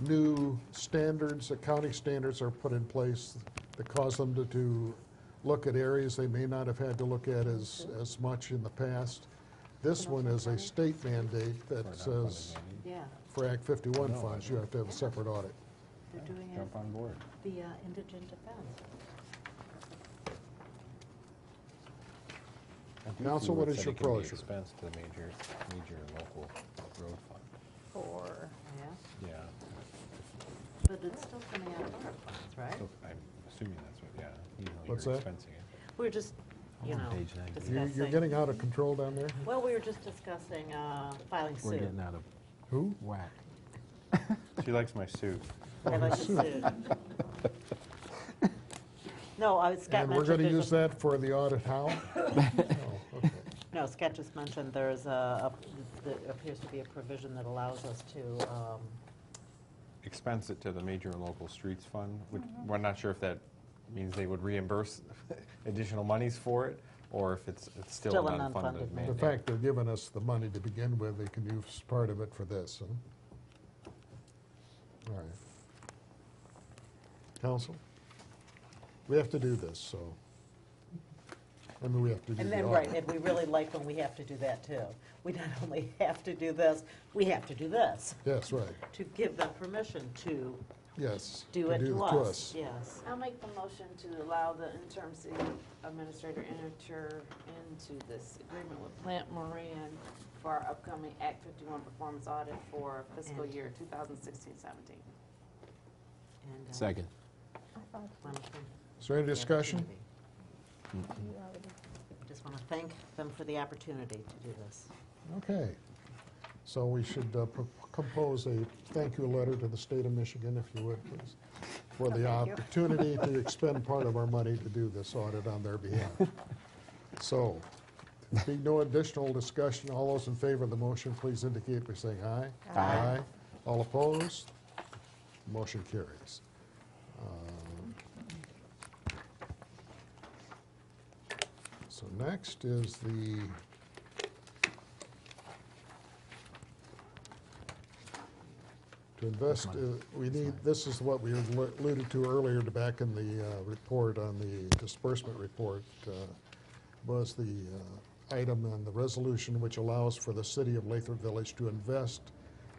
new standards, accounting standards are put in place that cause them to, to look at areas they may not have had to look at as, as much in the past. This one is a state mandate that says Yeah, for Act 51 funds, you have to have a separate audit. they're doing it Jump on board. via indigent defense. I do Council, see what where it is said your it can be pleasure? Expense to the major, major local road fund. for, Yeah, Yeah. but it's still coming out of ARPA funds, right? So I'm assuming that's what, yeah. you know, What's you're that? expensing it. We're just, you I'm on know, page nine. You- You're discussing, getting out of control down there? well, we were just discussing uh, filing We're suit. getting out of Who? whack. She likes my suit. Filing suit. No, I was, Scott And we're going mentioned, to there's use a- that for the audit how? Oh, okay. no, Scott just mentioned there is a, a- there appears to be a provision that allows us to, um, Expense it to the major and local streets fund. which- We're not sure if that means they would reimburse additional monies for it, or if it's it's still Still an an unfunded unfunded The mandate. fact they're giving us the money to begin with, they can use part of it for this, huh? All right. Council? We have to do this, so. I mean, we have to do And the then, right, audit. and we really like when we have to do that too. We not only have to do this, we have to do this Yes, right, to give them permission to yes. do to it to us. us. Yes. I'll make the motion to allow the interim city administrator enter into this agreement with Plant Moran for our upcoming Act 51 performance audit for fiscal And- year 2016-17. And, uh, Second. wanna thank- Is there any discussion? Mm-hmm. Just want to thank them for the opportunity to do this. Okay. So we should uh, pro- compose a thank you letter to the state of Michigan, if you would, please, for the opportunity to expend part of our money to do this audit on their behalf. So, being no additional discussion, all those in favor of the motion, please indicate by saying aye. Aye. All opposed? Motion carries. Um, So next is the To invest, uh, we need, this is what we alluded to earlier to back in the uh, report on the disbursement report, uh, was the uh, item on the resolution which allows for the city of Lathrop Village to invest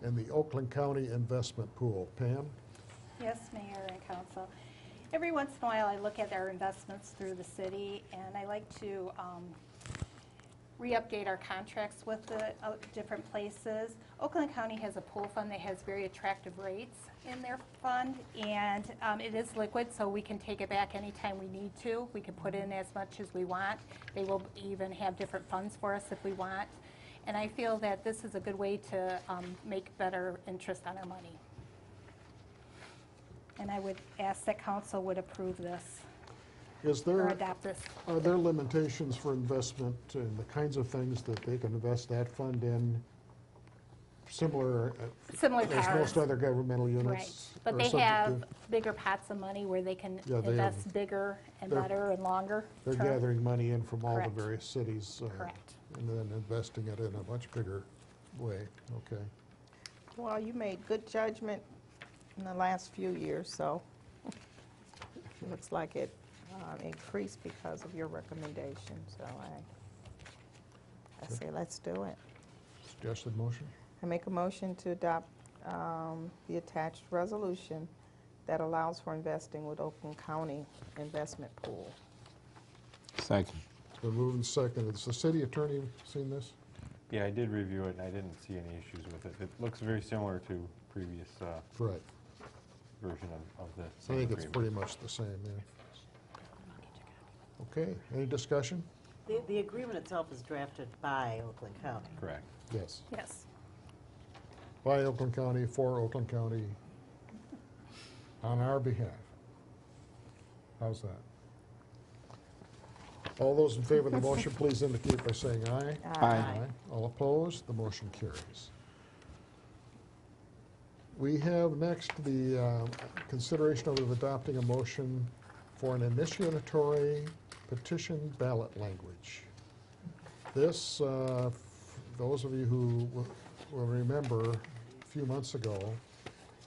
in the Oakland County Investment Pool. Pam? Yes, Mayor and Council. Every once in a while, I look at our investments through the city, and I like to um, re-update our contracts with the uh, different places. Oakland County has a pool fund that has very attractive rates in their fund, and um, it is liquid, so we can take it back anytime we need to. We can put in as much as we want. They will even have different funds for us if we want. And I feel that this is a good way to um, make better interest on our money. And I would ask that council would approve this Is or there, adopt this. are there limitations for investment and the kinds of things that they can invest that fund in? Similar, uh, Similar to as most ours. other governmental Right. units? But are they subject have to- bigger pots of money where they can Yeah, they have- invest bigger and they're- better and longer. They're term. gathering money in from all the Correct. various cities. uh, Correct. And then investing it in a much bigger way, okay. Well, you made good judgment in the last few years, so it looks like it um, increased because of your recommendation, so I, I say let's do it. Suggested motion? I make a motion to adopt um, the attached resolution that allows for investing with Oakland County Investment Pool. Second. It's been moved and seconded. Has the city attorney seen this? Yeah, I did review it, and I didn't see any issues with it. It looks very similar to previous uh, Right. version of of the I same think it's agreement. pretty much the same, yeah. Okay, any discussion? The, the agreement itself is drafted by Oakland County. Correct. Yes. Yes. By Oakland County, for Oakland County, on our behalf. How's that? All those in favor of the motion, please indicate by saying aye. Aye. All opposed, the motion carries. We have next the uh, consideration of adopting a motion for an initiatory petition ballot language. This, uh, f- those of you who w- will remember, a few months ago,